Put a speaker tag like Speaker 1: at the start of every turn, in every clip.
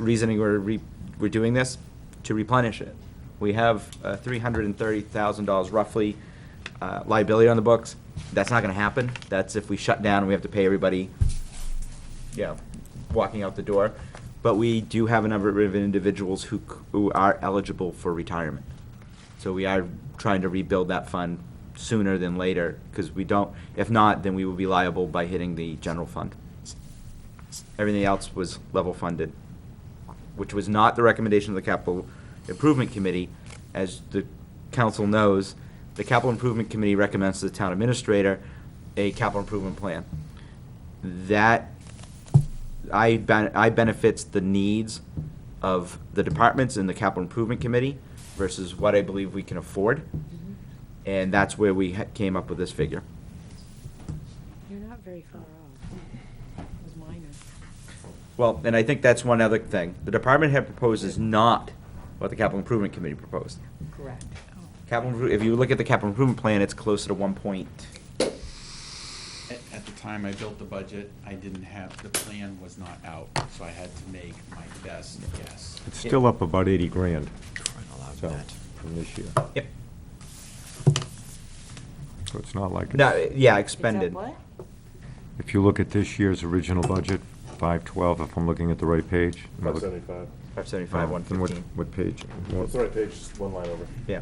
Speaker 1: reasoning we're, re- we're doing this, to replenish it. We have uh, $330,000 roughly uh, liability on the books. That's not going to happen. That's if we shut down and we have to pay everybody, you know, walking out the door. But we do have a number of individuals who, c- who are eligible for retirement. So we are trying to rebuild that fund sooner than later, because we don't, if not, then we will be liable by hitting the general fund. Everything else was level funded, which was not the recommendation of the capital improvement committee. As the council knows, the capital improvement committee recommends to the town administrator a capital improvement plan. That I, ben- I benefits the needs of the departments and the capital improvement committee versus what I believe we can afford.
Speaker 2: Mm-hmm.
Speaker 1: And that's where we ha- came up with this figure.
Speaker 2: You're not very far off. It was minor.
Speaker 1: Well, and I think that's one other thing. The department head proposed is not what the capital improvement committee proposed.
Speaker 2: Correct.
Speaker 1: Capital, impro- if you look at the capital improvement plan, it's closer to one point.
Speaker 3: At, at the time I built the budget, I didn't have, the plan was not out, so I had to make my best guess.
Speaker 4: It's still up about 80 grand, so, from this year.
Speaker 1: Yep.
Speaker 4: So it's not like,
Speaker 1: No,
Speaker 4: it's-
Speaker 1: yeah, expended.
Speaker 4: if you look at this year's original budget, 512, if I'm looking at the right page. am I
Speaker 5: Five
Speaker 4: look-
Speaker 5: seventy-five.
Speaker 1: Five seventy-five,
Speaker 4: Oh,
Speaker 1: one
Speaker 4: then what-
Speaker 1: fifteen.
Speaker 4: What page? What-
Speaker 5: That's the right page, just one line over.
Speaker 1: Yeah.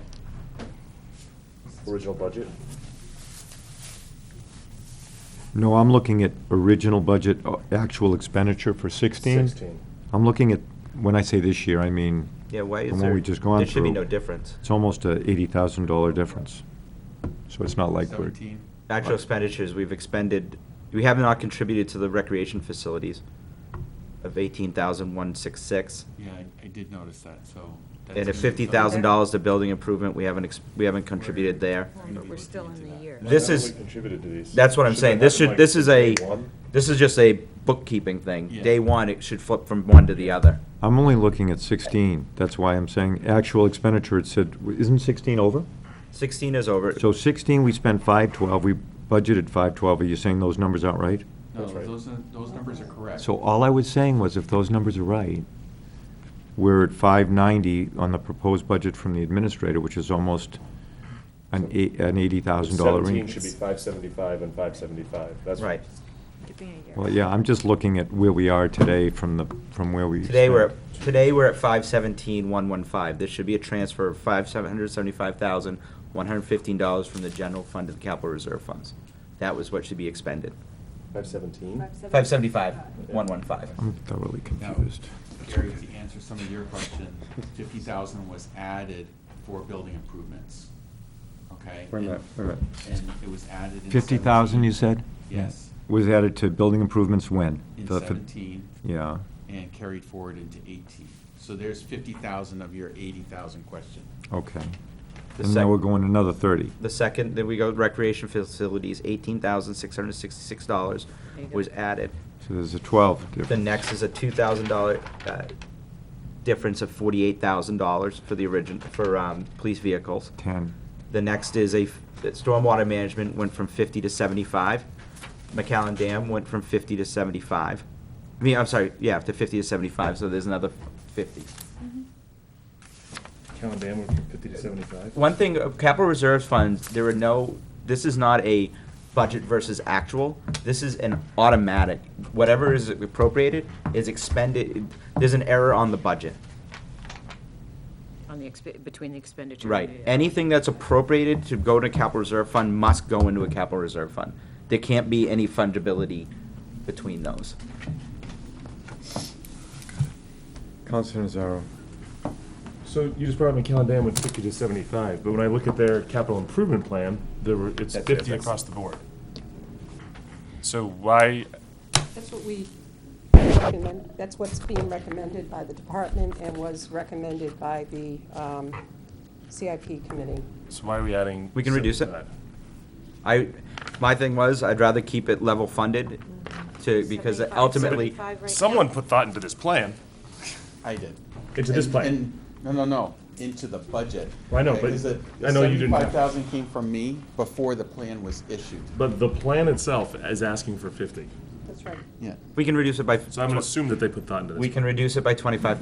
Speaker 5: Original budget.
Speaker 4: No, I'm looking at original budget, uh, actual expenditure for 16.
Speaker 5: Sixteen.
Speaker 4: I'm looking at, when I say this year, I mean,
Speaker 1: Yeah, why is
Speaker 4: From what
Speaker 1: there?
Speaker 4: we just gone
Speaker 1: There should be
Speaker 4: through.
Speaker 1: no difference.
Speaker 4: it's almost a $80,000 difference. So it's not like we're.
Speaker 3: Seventeen,
Speaker 1: Actual expenditures, we've expended, we have not contributed to the recreation facilities of eighteen thousand one six six.
Speaker 3: yeah, I, I did notice that, so.
Speaker 1: And
Speaker 3: that's gonna
Speaker 1: at
Speaker 3: be
Speaker 1: fifty thousand
Speaker 3: something-
Speaker 1: dollars to building improvement, we haven't, ex- we haven't contributed there.
Speaker 3: gonna
Speaker 2: But
Speaker 3: be
Speaker 2: we're
Speaker 3: looking
Speaker 2: still
Speaker 3: into
Speaker 2: in the
Speaker 3: that.
Speaker 2: year.
Speaker 1: This
Speaker 5: Not
Speaker 1: is-
Speaker 5: really Contributed to these.
Speaker 1: That's what I'm
Speaker 5: Should've
Speaker 1: saying. This should,
Speaker 5: happened,
Speaker 1: this
Speaker 5: like,
Speaker 1: is a,
Speaker 5: day one.
Speaker 1: this is just a bookkeeping thing.
Speaker 3: Yeah.
Speaker 1: Day one, it should flip from one to the other.
Speaker 4: I'm only looking at 16. That's why I'm saying actual expenditure, it said, isn't 16 over?
Speaker 1: Sixteen is over.
Speaker 4: So 16, we spent 512, we budgeted 512. Are you saying those numbers aren't right?
Speaker 3: No,
Speaker 5: That's right.
Speaker 3: those, are- those numbers are correct.
Speaker 4: So all I was saying was if those numbers are right, we're at 590 on the proposed budget from the administrator, which is almost an eight- an $80,000
Speaker 5: Seventeen
Speaker 4: range.
Speaker 5: should be five seventy-five and five seventy-five, that's.
Speaker 1: Right.
Speaker 4: Well, yeah, I'm just looking at where we are today from the, from where we.
Speaker 1: Today, we're,
Speaker 4: spent.
Speaker 1: at- today, we're at five seventeen, one one five. This should be a transfer of five, seven hundred seventy-five thousand, one hundred fifteen dollars from the general fund to the capital reserve funds. That was what should be expended.
Speaker 5: Five seventeen?
Speaker 1: Five seventy-five, one one five.
Speaker 4: I'm thoroughly
Speaker 3: Now,
Speaker 4: confused.
Speaker 3: Gary, to answer some of your question, fifty thousand was added for building improvements, okay?
Speaker 4: Wait a minute, wait a minute.
Speaker 3: And it was added in.
Speaker 4: 50,000, you
Speaker 3: 17.
Speaker 4: said?
Speaker 3: Yes,
Speaker 4: Was added to building improvements when?
Speaker 3: in
Speaker 4: The-
Speaker 3: seventeen.
Speaker 4: Yeah.
Speaker 3: and carried forward into eighteen. So there's fifty thousand of your eighty thousand question.
Speaker 4: Okay.
Speaker 1: The
Speaker 4: And now we're
Speaker 1: sec-
Speaker 4: going another 30.
Speaker 1: The second, then we go recreation facilities, eighteen thousand, six hundred sixty-six dollars
Speaker 2: There you go.
Speaker 1: was added.
Speaker 4: So there's a 12 difference.
Speaker 1: The next is a two thousand dollar, uh, difference of forty-eight thousand dollars for the origin, for, um, police vehicles.
Speaker 4: 10.
Speaker 1: The next is a, f- that stormwater management went from fifty to seventy-five. McAllen Dam went from fifty to seventy-five. I mean, I'm sorry, yeah, to fifty to seventy-five, so there's another fifty.
Speaker 2: Mm-hmm.
Speaker 5: Count down, we're from fifty to seventy-five.
Speaker 1: One thing, uh, capital reserves funds, there are no, this is not a budget versus actual. This is an automatic, whatever is appropriated is expended, there's an error on the budget.
Speaker 2: On the, expe- between the expenditure.
Speaker 1: Right,
Speaker 2: and the-
Speaker 1: anything that's appropriated to go to capital reserve fund must go into a capital reserve fund. There can't be any fungibility between those.
Speaker 4: Counselor Nazaro.
Speaker 5: So you just brought up McAllen Dam went fifty to seventy-five, but when I look at their capital improvement plan, there were, it's
Speaker 1: That's-
Speaker 5: fifty
Speaker 1: that's-
Speaker 5: across the board. So why,
Speaker 6: That's what we recommend, that's what's being recommended by the department and was recommended by the um, CIP committee.
Speaker 5: so why are we adding?
Speaker 1: We can reduce it.
Speaker 5: 75?
Speaker 1: I, my thing was, I'd rather keep it level funded to, because ultimately,
Speaker 5: Someone put thought into this plan.
Speaker 3: I did.
Speaker 5: Into this
Speaker 3: And-
Speaker 5: plan.
Speaker 3: and- No, no, no, into the budget.
Speaker 5: Well, I know, but I know you didn't have-
Speaker 3: Seventy-five thousand came from me before the plan was issued.
Speaker 5: But the plan itself is asking for fifty.
Speaker 7: That's right.
Speaker 8: Yeah.
Speaker 5: We can reduce it by.
Speaker 1: So I'm gonna assume that they put thought into this.
Speaker 5: We can reduce it by twenty-five